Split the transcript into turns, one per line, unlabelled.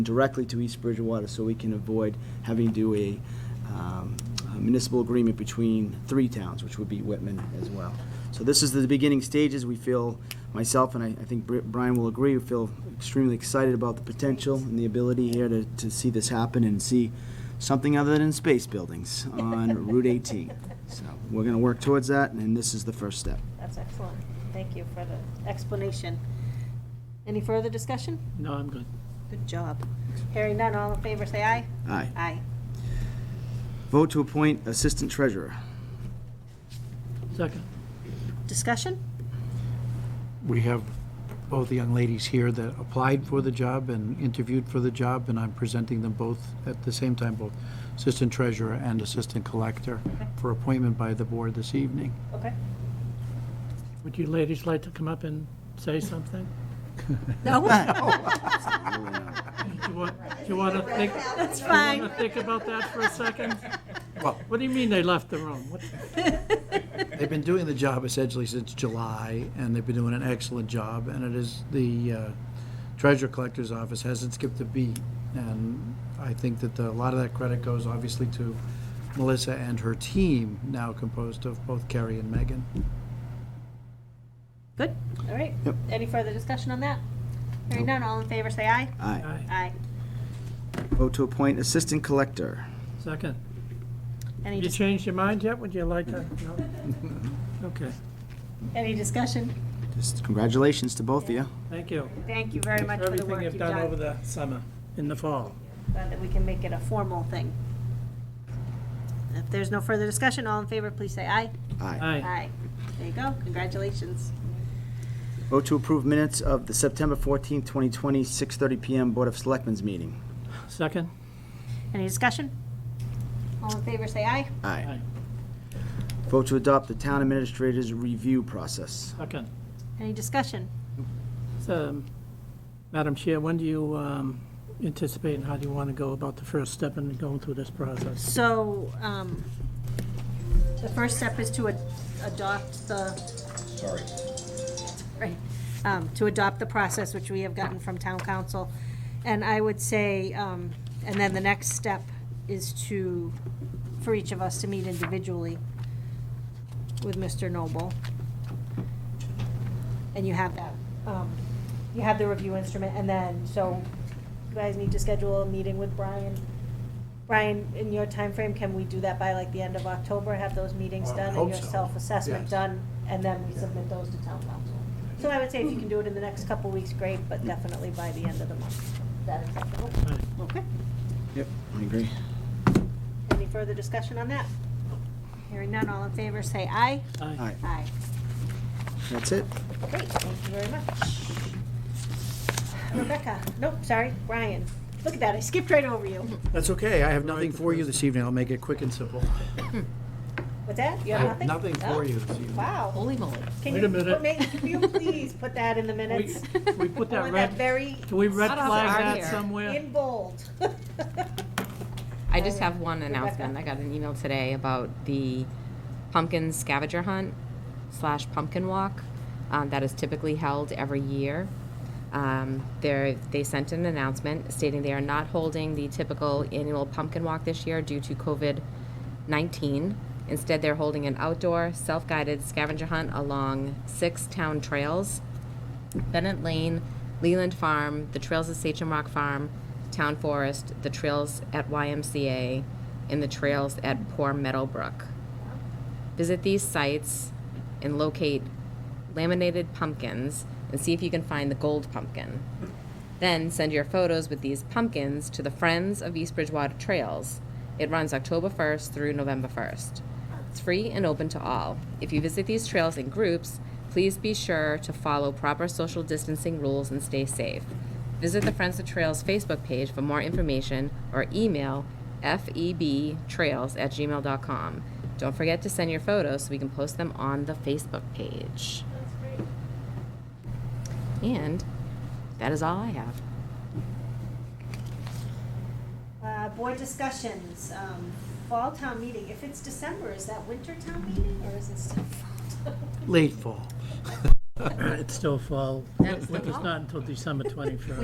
directly to East Bridgewater so we can avoid having to do a um, a municipal agreement between three towns, which would be Whitman as well. So this is the beginning stages. We feel, myself and I I think Bri- Brian will agree, we feel extremely excited about the potential and the ability here to, to see this happen and see something other than space buildings on Route 18. So we're going to work towards that, and this is the first step.
That's excellent. Thank you for the explanation. Any further discussion?
No, I'm good.
Good job. Hearing none, all in favor, say aye.
Aye.
Aye.
Vote to appoint Assistant Treasurer.
Second.
Discussion?
We have both the young ladies here that applied for the job and interviewed for the job, and I'm presenting them both at the same time, both Assistant Treasurer and Assistant Collector, for appointment by the board this evening.
Okay.
Would you ladies like to come up and say something? Do you want, do you want to think, do
It's
you want to
fine.
think about that for a second?
Well-
What do you mean they left the room? What-
They've been doing the job essentially since July, and they've been doing an excellent job, and it is, the uh, Treasurer Collector's Office hasn't skipped a beat. And I think that the- a lot of that credit goes obviously to Melissa and her team, now composed of both Carrie and Megan.
Good. All right.
Yep.
Any further discussion on that? Hearing none, all in favor, say aye.
Aye.
Aye.
Aye.
Vote to appoint Assistant Collector.
Second.
Any,
You
dis-
changed your mind yet? Would you like to? No? Okay,
any discussion?
Just congratulations to both of you.
thank you.
Thank you very much for the
Everything
work
you've
you've
done over
done.
the summer, in the fall.
Glad that we can make it a formal thing. If there's no further discussion, all in favor, please say aye.
Aye.
Aye.
Aye. There you go. Congratulations.
Vote to approve minutes of the September 14th, 2020, 6:30 PM Board of Selectmen's meeting.
Second?
Any discussion? All in favor, say aye.
Aye.
Aye.
Vote to adopt the town administrator's review process.
Second.
Any discussion?
So, um, Madam Chair, when do you um, anticipate and how do you want to go about the first step in going through this process?
So, um, the first step is to ad- adopt the. Sorry. Right, um, to adopt the process which we have gotten from town council. And I would say, um, and then the next step is to, for each of us to meet individually with Mr. Noble. And you have that, um, you have the review instrument, and then, so you guys need to schedule a meeting with Brian. Brian, in your time frame, can we do that by like the end of October, have those meetings
I
done and
hope
your
so,
self-assessment
yes.
done, and then we submit those to town council? So I would say if you can do it in the next couple weeks, great, but definitely by the end of the month. Is that acceptable?
Aye.
Okay.
Yep. I agree.
Any further discussion on that? Hearing none, all in favor, say aye.
Aye.
Aye.
That's it.
Great, thank you very much. Rebecca, nope, sorry, Brian. Look at that, I skipped right over you.
That's okay, I have nothing for you this evening, I'll make it quick and simple.
What's that? You
I
have
have
nothing?
nothing
Oh,
for you this evening.
Wow.
Holy moly.
Can
Wait
you
a minute.
put- make- Can you please put that in the minutes?
We put
I want
that
that
red,
very
do we red
Not off
flag
our
that
here.
somewhere?
in bold.
I just have one
Rebecca.
announcement. I got an email today about the pumpkin scavenger hunt slash pumpkin walk um, that is typically held every year. Um, there, they sent an announcement stating they are not holding the typical annual pumpkin walk this year due to COVID 19. Instead, they're holding an outdoor, self guided scavenger hunt along six town trails Bennett Lane, Leland Farm, the trails at Sachem Rock Farm, Town Forest, the trails at YMCA, and the trails at Poor Meadowbrook. Visit these sites and locate laminated pumpkins and see if you can find the gold pumpkin. Then send your photos with these pumpkins to the Friends of East Bridgewater Trails. It runs October 1st through November 1st. It's free and open to all. If you visit these trails in groups, please be sure to follow proper social distancing rules and stay safe. Visit the Friends of Trails Facebook page for more information or email febtrails at gmail.com. Don't forget to send your photos so we can post them on the Facebook page. And that is all I have.
Uh, board discussions, um, fall town meeting, if it's December, is that winter town meeting or is it still fall?
Late fall.
It's still fall.
That's the
Winter's
fall.
not until December 21st.